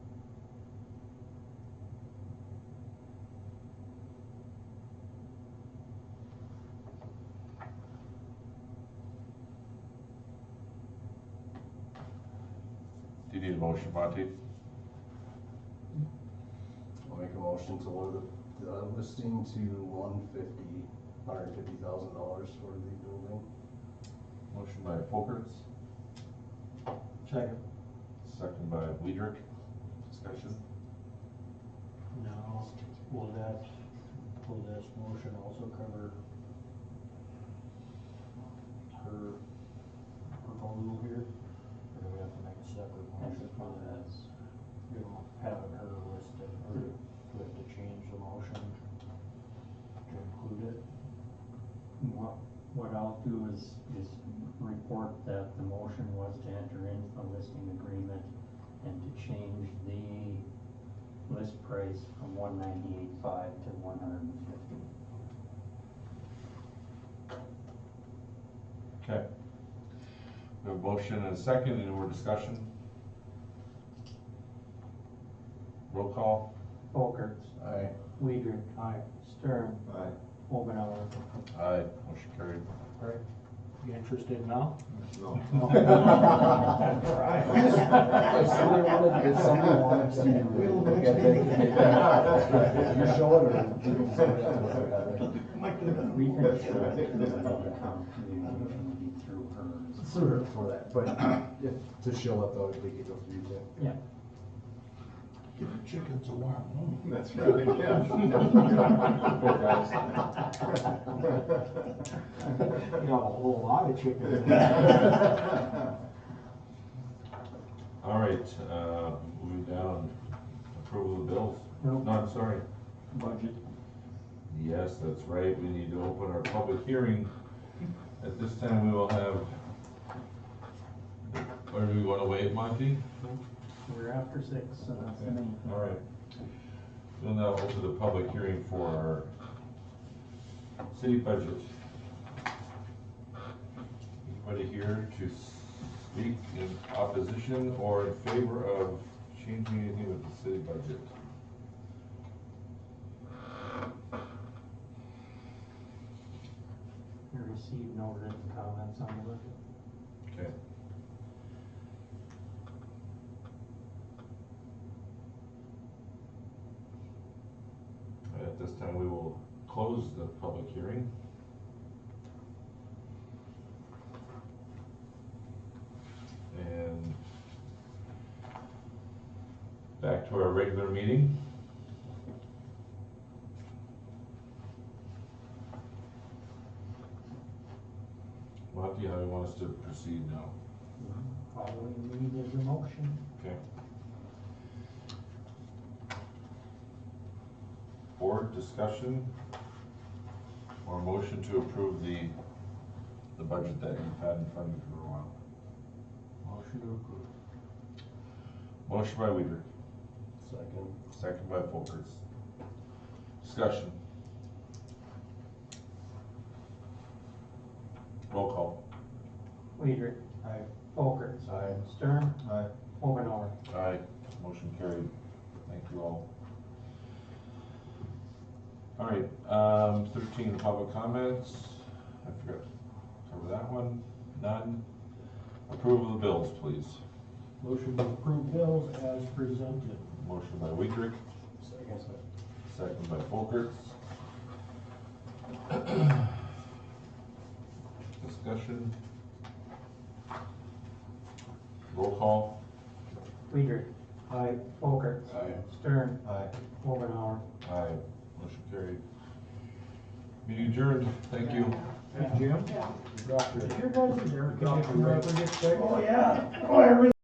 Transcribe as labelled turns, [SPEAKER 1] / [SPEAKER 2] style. [SPEAKER 1] You need a motion, Monty?
[SPEAKER 2] I'll make a motion to lower the, the listing to one fifty, hundred fifty thousand dollars for the building.
[SPEAKER 1] Motion by Folkerts,
[SPEAKER 3] Second.
[SPEAKER 1] second by Weidrich. Discussion?
[SPEAKER 3] Now, will that, will this motion also cover her proposal here? Or do we have to make a separate motion for that? You know, having her listed, or do we have to change the motion to include it?
[SPEAKER 4] What, what I'll do is, is report that the motion was to enter into the listing agreement and to change the list price from one ninety-eight five to one hundred and fifty.
[SPEAKER 1] Okay. We have a motion and a second, any more discussion? Roll call?
[SPEAKER 3] Folkerts,
[SPEAKER 2] Aye.
[SPEAKER 3] Weider. Aye. Stern.
[SPEAKER 2] Aye.
[SPEAKER 3] Omenauer.
[SPEAKER 1] Aye, motion carried.
[SPEAKER 3] You interested now?
[SPEAKER 2] If somebody wanted, if somebody wanted to look at it, they could. you show it or do somebody else look at it?
[SPEAKER 4] We can ensure that the common communication will be through hers.
[SPEAKER 2] Sure. For that, but if, to show it though, they could go through it.
[SPEAKER 4] Yeah.
[SPEAKER 3] Chickens a warm home.
[SPEAKER 5] That's right, yeah.
[SPEAKER 3] You got a whole lot of chickens.
[SPEAKER 1] All right, uh, moving down, approval of bills.
[SPEAKER 3] Nope.
[SPEAKER 1] No, I'm sorry.
[SPEAKER 4] Budget
[SPEAKER 1] Yes, that's right, we need to open our public hearing. At this time, we will have, or do we want to wait, Monty?
[SPEAKER 4] We're after six, so that's the main.
[SPEAKER 1] All right. We'll now open the public hearing for our city budget. Anybody here to speak in opposition or in favor of changing anything with the city budget?
[SPEAKER 3] We received no written comments on the budget.
[SPEAKER 1] Okay. At this time, we will close the public hearing. And back to our regular meeting. Monty, how do you want us to proceed now?
[SPEAKER 3] All we need is a motion.
[SPEAKER 1] Okay. Board discussion or motion to approve the, the budget that you've had in front of you for a while? Motion to approve. Motion by Weider,
[SPEAKER 2] Second.
[SPEAKER 1] second by Folkerts. Discussion. Roll call.
[SPEAKER 3] Weider. Aye. Folkerts.
[SPEAKER 2] Aye.
[SPEAKER 3] Stern.
[SPEAKER 2] Aye.
[SPEAKER 3] Omenauer.
[SPEAKER 1] Aye. Motion carried. Thank you all. All right, um, thirteen, public comments. I forgot to cover that one. None. Approval of the bills, please.
[SPEAKER 3] Motion to approve bills as presented.
[SPEAKER 1] Motion by Weidrich,
[SPEAKER 2] Second.
[SPEAKER 1] second by Folkerts. Discussion. Roll call.
[SPEAKER 3] Weider. Aye. Folkerts.
[SPEAKER 2] Aye.
[SPEAKER 3] Stern.
[SPEAKER 2] Aye.
[SPEAKER 3] Omenauer.
[SPEAKER 1] Aye. Motion carried. Meeting adjourned. Thank you.
[SPEAKER 3] Jim.
[SPEAKER 4] Your guys are there.
[SPEAKER 3] Copyright.
[SPEAKER 4] Oh, yeah. Oh, I really